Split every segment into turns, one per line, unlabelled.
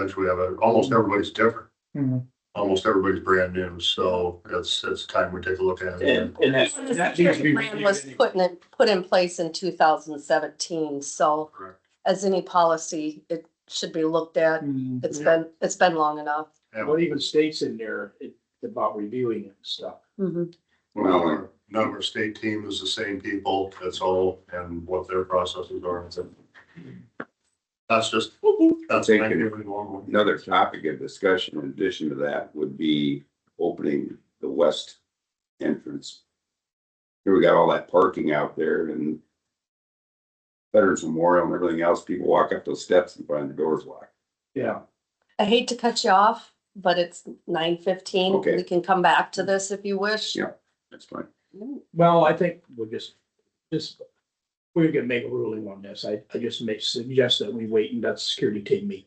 which we have, a- almost everybody's different.
Mhm.
Almost everybody's brand new, so it's, it's time we take a look at it.
And, and that, that needs to be
Plan was
reviewed.
put in, put in place in two thousand seventeen, so
Correct.
as any policy, it should be looked at.
Mm-hmm.
Mhm.
It's been, it's been long enough.
And
What even states in there it- about reviewing and stuff?
None of our- none of our state team is the same people, that's all, and what their processes are. That's just, that's
Thank you.
really normal.
Another topic of discussion in addition to that would be opening the west entrance. Here we got all that parking out there and Veterans Memorial and everything else, people walk up those steps and find the doors locked.
Yeah,
I hate to cut you off, but it's nine fifteen.
Okay.
We can come back
Mm-hmm.
to this if you wish.
Yeah. That's fine.
well, I think we'll just, just, we're gonna make a ruling on this. I, I just may suggest that we wait and let the security team meet.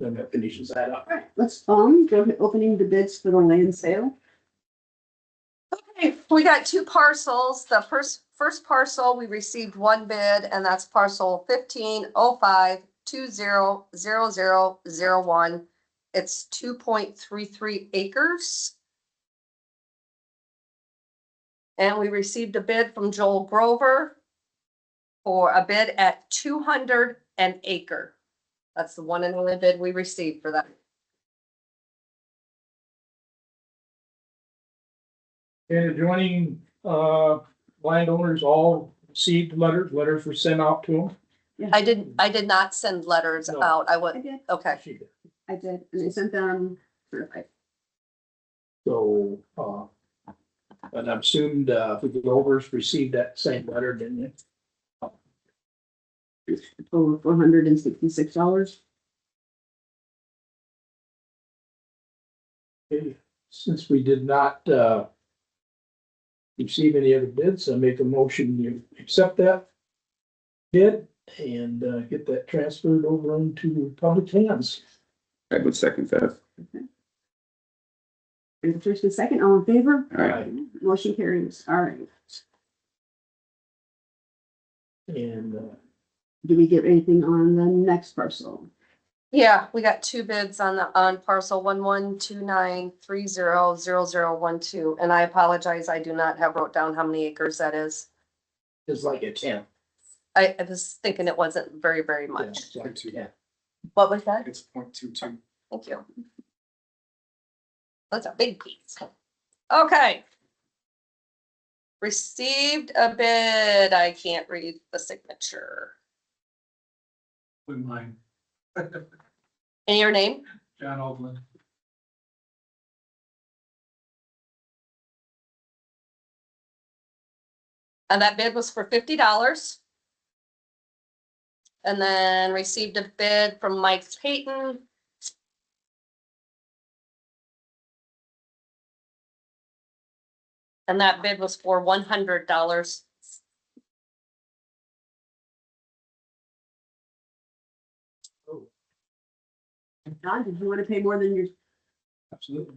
Then that finishes that up.
Alright, let's, um, go to opening the bids for the land sale.
Okay, we got two parcels. The first, first parcel, we received one bid and that's parcel fifteen oh five two zero zero zero zero one. It's two point three three acres. And we received a bid from Joel Grover for a bid at two hundred an acre. That's the one and only bid we received for that.
And adjoining, uh, landowners all received letters, letters were sent out to
I didn't, I did not send letters
No.
out. I
I
went,
did,
okay.
them.
I did, and I sent them certified.
So, uh, and I'm assumed, uh, the Grovers received that same letter, didn't they?
over four hundred and sixty-six dollars.
Since we did not, uh, receive any other bids, I make a motion to accept that bid and, uh, get that transferred over into public hands.
I would second that.
And first and second, all in favor?
All right.
Motion carries, all right.
And, uh,
Do we get anything on the next parcel?
Yeah, we got two bids on the, on parcel one one two nine three zero zero zero one two, and I apologize, I do not have wrote down how many acres that is.
it's like a ten.
I, I was thinking it wasn't very, very
yeah,
much.
it's like a 10.
What was that?
It's point two two.
Thank you. That's a big piece. Okay. Received a bid, I can't read the signature.
Wouldn't mind.
And your name?
John Oldland.
And that bid was for fifty dollars. And then received a bid from Mike Payton. And that bid was for one hundred dollars.
John, did you want to pay more than your,
Absolutely.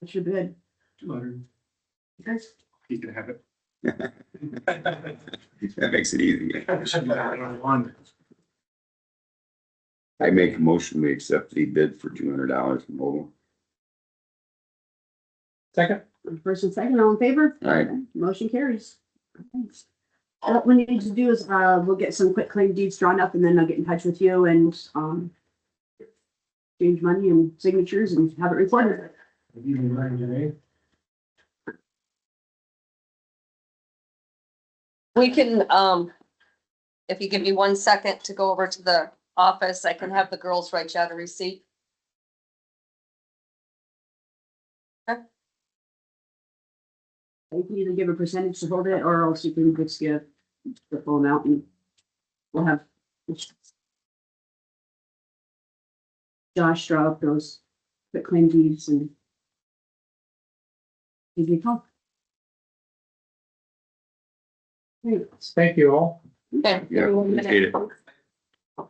what's your bid?
Two hundred.
Guys,
He can have it.
That makes it easy.
One.
I make a motion, we accept the bid for two hundred dollars from Oval.
Second,
First and second, all in favor?
Aye.
Okay, Motion carries. Thanks. Uh, What we need to do is, uh, we'll get some quick claim deeds drawn up and then I'll get in touch with you and, um, change money and signatures and have it recorded.
We can, um, if you give me one second to go over to the office, I can have the girls write you out a receipt.
You can either give a percentage to hold it, or else you can just give the full amount and we'll have. Josh draw up those quick claim deeds and. Give you a call. Great.
thank you all.
Okay.
Yeah,
give me one
appreciate it.
minute.